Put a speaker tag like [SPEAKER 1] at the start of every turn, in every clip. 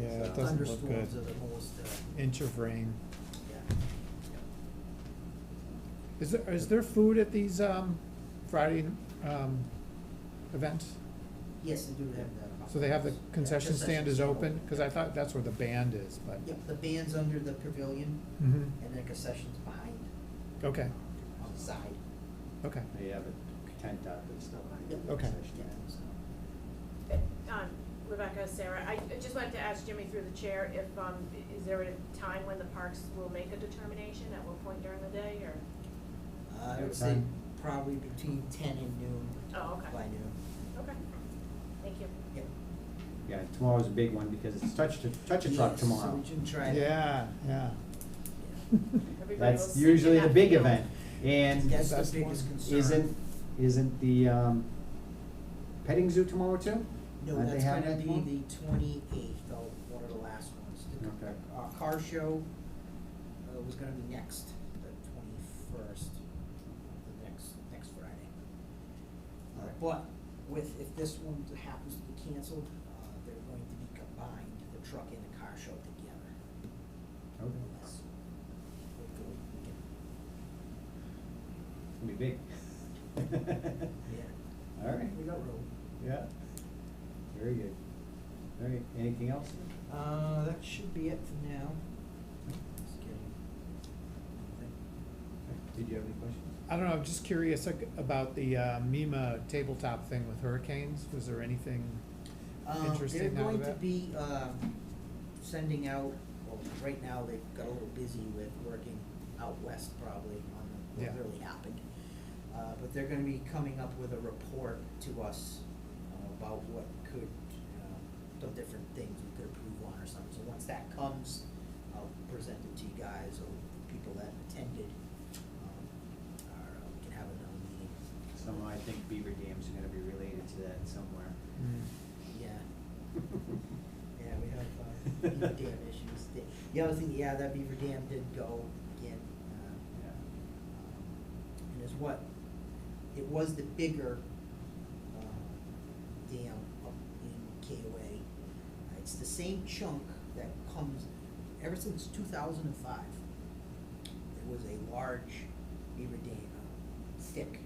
[SPEAKER 1] Yeah, that doesn't look
[SPEAKER 2] thunderstorms are
[SPEAKER 1] good.
[SPEAKER 2] the most, uh,
[SPEAKER 1] inch of rain.
[SPEAKER 2] yeah.
[SPEAKER 1] Is there, is there food at these, um, Friday, um, events?
[SPEAKER 2] Yes, they do have that.
[SPEAKER 1] So they have the
[SPEAKER 2] Yeah,
[SPEAKER 1] concession stand is
[SPEAKER 2] concession
[SPEAKER 1] open, cause I thought that's where the band is, but.
[SPEAKER 2] Yep, the band's under the pavilion
[SPEAKER 1] Mhm.
[SPEAKER 2] and the concession's behind,
[SPEAKER 1] okay,
[SPEAKER 2] on the side.
[SPEAKER 1] okay,
[SPEAKER 3] They have a tent out that's not behind
[SPEAKER 2] Yep.
[SPEAKER 3] the
[SPEAKER 1] Okay.
[SPEAKER 3] concession
[SPEAKER 2] Yeah,
[SPEAKER 3] stand.
[SPEAKER 2] so.
[SPEAKER 4] Um, Rebecca, Sarah, I I just wanted to ask Jimmy through the chair if, um, is there a time when the parks will make a determination, at what point during the day, or?
[SPEAKER 2] uh, I
[SPEAKER 3] Yeah,
[SPEAKER 2] would say
[SPEAKER 3] time.
[SPEAKER 2] probably between ten and noon,
[SPEAKER 4] Oh, okay,
[SPEAKER 2] by noon.
[SPEAKER 4] okay, thank you.
[SPEAKER 2] Yep.
[SPEAKER 3] Yeah, tomorrow's a big one because it's touch to, touch a truck
[SPEAKER 2] Yes, so
[SPEAKER 3] tomorrow.
[SPEAKER 2] we can try that.
[SPEAKER 1] yeah, yeah.
[SPEAKER 2] Yeah.
[SPEAKER 4] Everybody will
[SPEAKER 3] That's
[SPEAKER 4] see you
[SPEAKER 3] usually
[SPEAKER 4] in
[SPEAKER 3] the
[SPEAKER 4] that
[SPEAKER 3] big
[SPEAKER 4] field.
[SPEAKER 3] event. And
[SPEAKER 2] That's
[SPEAKER 1] That's
[SPEAKER 2] the biggest
[SPEAKER 1] one.
[SPEAKER 2] concern.
[SPEAKER 3] isn't, isn't the, um, petting zoo tomorrow too?
[SPEAKER 2] No,
[SPEAKER 3] Aren't they
[SPEAKER 2] that's
[SPEAKER 3] having
[SPEAKER 2] gonna
[SPEAKER 3] that
[SPEAKER 2] be
[SPEAKER 3] tomorrow?
[SPEAKER 2] the twenty-eighth, one of the last ones. The
[SPEAKER 3] Okay.
[SPEAKER 2] Uh, car show, uh, was gonna be next, the twenty-first, the next, next Friday. Uh,
[SPEAKER 3] Alright.
[SPEAKER 2] But with, if this one happens to be canceled, uh, they're going to be combined, the truck and the car show together.
[SPEAKER 3] Okay.
[SPEAKER 2] Unless, hopefully, we can,
[SPEAKER 3] It's gonna be big.
[SPEAKER 2] yeah,
[SPEAKER 3] All right,
[SPEAKER 2] we got room.
[SPEAKER 3] yeah. Very good. All right, anything else?
[SPEAKER 2] Uh, that should be it for now. Just kidding.
[SPEAKER 3] Did you have any questions?
[SPEAKER 1] I don't know, I'm just curious ag- about the, uh, MEMA tabletop thing with hurricanes, was there anything?
[SPEAKER 2] Um,
[SPEAKER 1] Interesting now
[SPEAKER 2] They're going
[SPEAKER 1] that-
[SPEAKER 2] to be, um, sending out, well, right now they've got a little busy with working out west probably on the- what
[SPEAKER 1] Yeah.
[SPEAKER 2] really happened. Uh, but they're gonna be coming up with a report to us uh, about what could, uh, the different things we could improve on or something. So once that comes, I'll present it to you guys or the people that attended, um, or uh, we can have another meeting.
[SPEAKER 3] Somehow I think Beaver Dam's gonna be related to that somewhere.
[SPEAKER 1] Mm,
[SPEAKER 2] Yeah. Yeah, we have uh, beaver dam issues. The- The other thing, yeah, that beaver dam did go again. uh,
[SPEAKER 3] Yeah.
[SPEAKER 2] um, And is what, it was the bigger um, dam up in KOA. It's the same chunk that comes, ever since two thousand and five, there was a large beaver dam, uh, thick,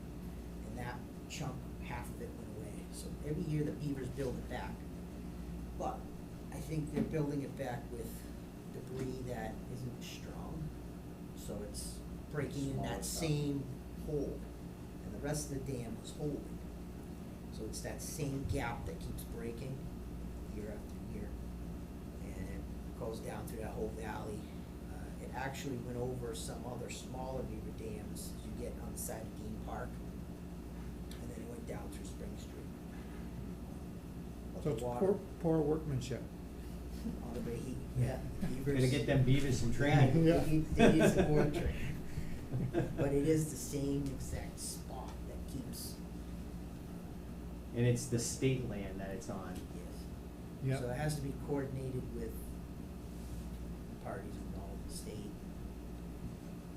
[SPEAKER 2] and that chunk, half of it went away. So every year the beavers build it back. But I think they're building it back with debris that isn't strong, so it's breaking in
[SPEAKER 3] Smaller
[SPEAKER 2] that
[SPEAKER 3] stuff.
[SPEAKER 2] same hole. And the rest of the dam was holding. So it's that same gap that keeps breaking year after year. And it goes down through that whole valley. Uh, It actually went over some other smaller beaver dams as you get on the side of Dean Park. And then it went down through Spring Street. But
[SPEAKER 1] So
[SPEAKER 2] the
[SPEAKER 1] it's
[SPEAKER 2] water-
[SPEAKER 1] poor, poor workmanship.
[SPEAKER 2] on the Bahie, yeah.
[SPEAKER 3] Gotta get them beavers some training.
[SPEAKER 2] Yeah, they need- they need some more training. But
[SPEAKER 3] But
[SPEAKER 2] it is the same exact spot that keeps,
[SPEAKER 3] And it's the state land that it's on.
[SPEAKER 2] yes.
[SPEAKER 1] Yeah.
[SPEAKER 2] So it has to be coordinated with parties involved, the state.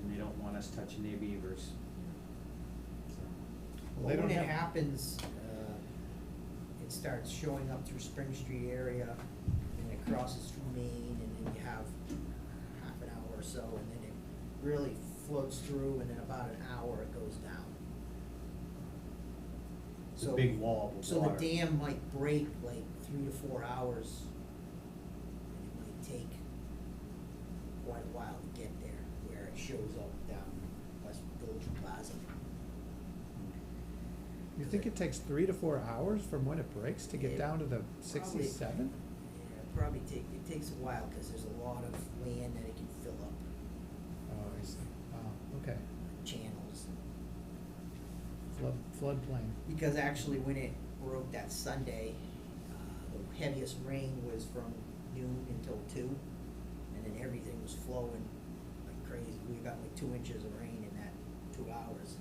[SPEAKER 3] And they don't want us touching their beavers.
[SPEAKER 1] Well, they
[SPEAKER 2] Well, when
[SPEAKER 1] don't
[SPEAKER 2] it
[SPEAKER 1] have-
[SPEAKER 2] happens, uh, it starts showing up through Spring Street area, and it crosses through Maine, and then you have half an hour or so, and then it really floats through, and in about an hour, it goes down.
[SPEAKER 3] It's a
[SPEAKER 2] So,
[SPEAKER 3] big wall of
[SPEAKER 2] so
[SPEAKER 3] water.
[SPEAKER 2] the dam might break like three to four hours, and it might take quite a while to get there, where it shows up down West Village Plaza.
[SPEAKER 1] You think it takes three to four hours from when it breaks to get
[SPEAKER 2] It
[SPEAKER 1] down to the
[SPEAKER 2] probably-
[SPEAKER 1] sixty-seven?
[SPEAKER 2] Yeah, it probably take, it takes a while, cause there's a lot of land that it can fill up,
[SPEAKER 1] Oh, I see, wow, okay,
[SPEAKER 2] channels.
[SPEAKER 1] flood, floodplain,
[SPEAKER 2] Because actually, when it broke that Sunday, uh, the heaviest rain was from noon until two, and then everything was flowing like crazy. We got like two inches of rain in that two hours.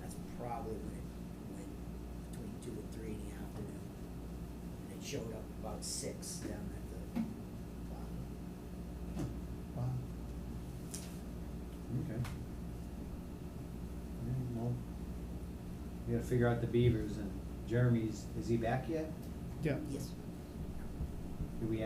[SPEAKER 2] That's probably when it went between two and three in the afternoon. And it showed up about six down at the bottom.
[SPEAKER 1] wow.
[SPEAKER 3] Okay. Yeah, well, we gotta figure out the beavers and Jeremy's, is he back yet?
[SPEAKER 1] Yeah,
[SPEAKER 2] Yes.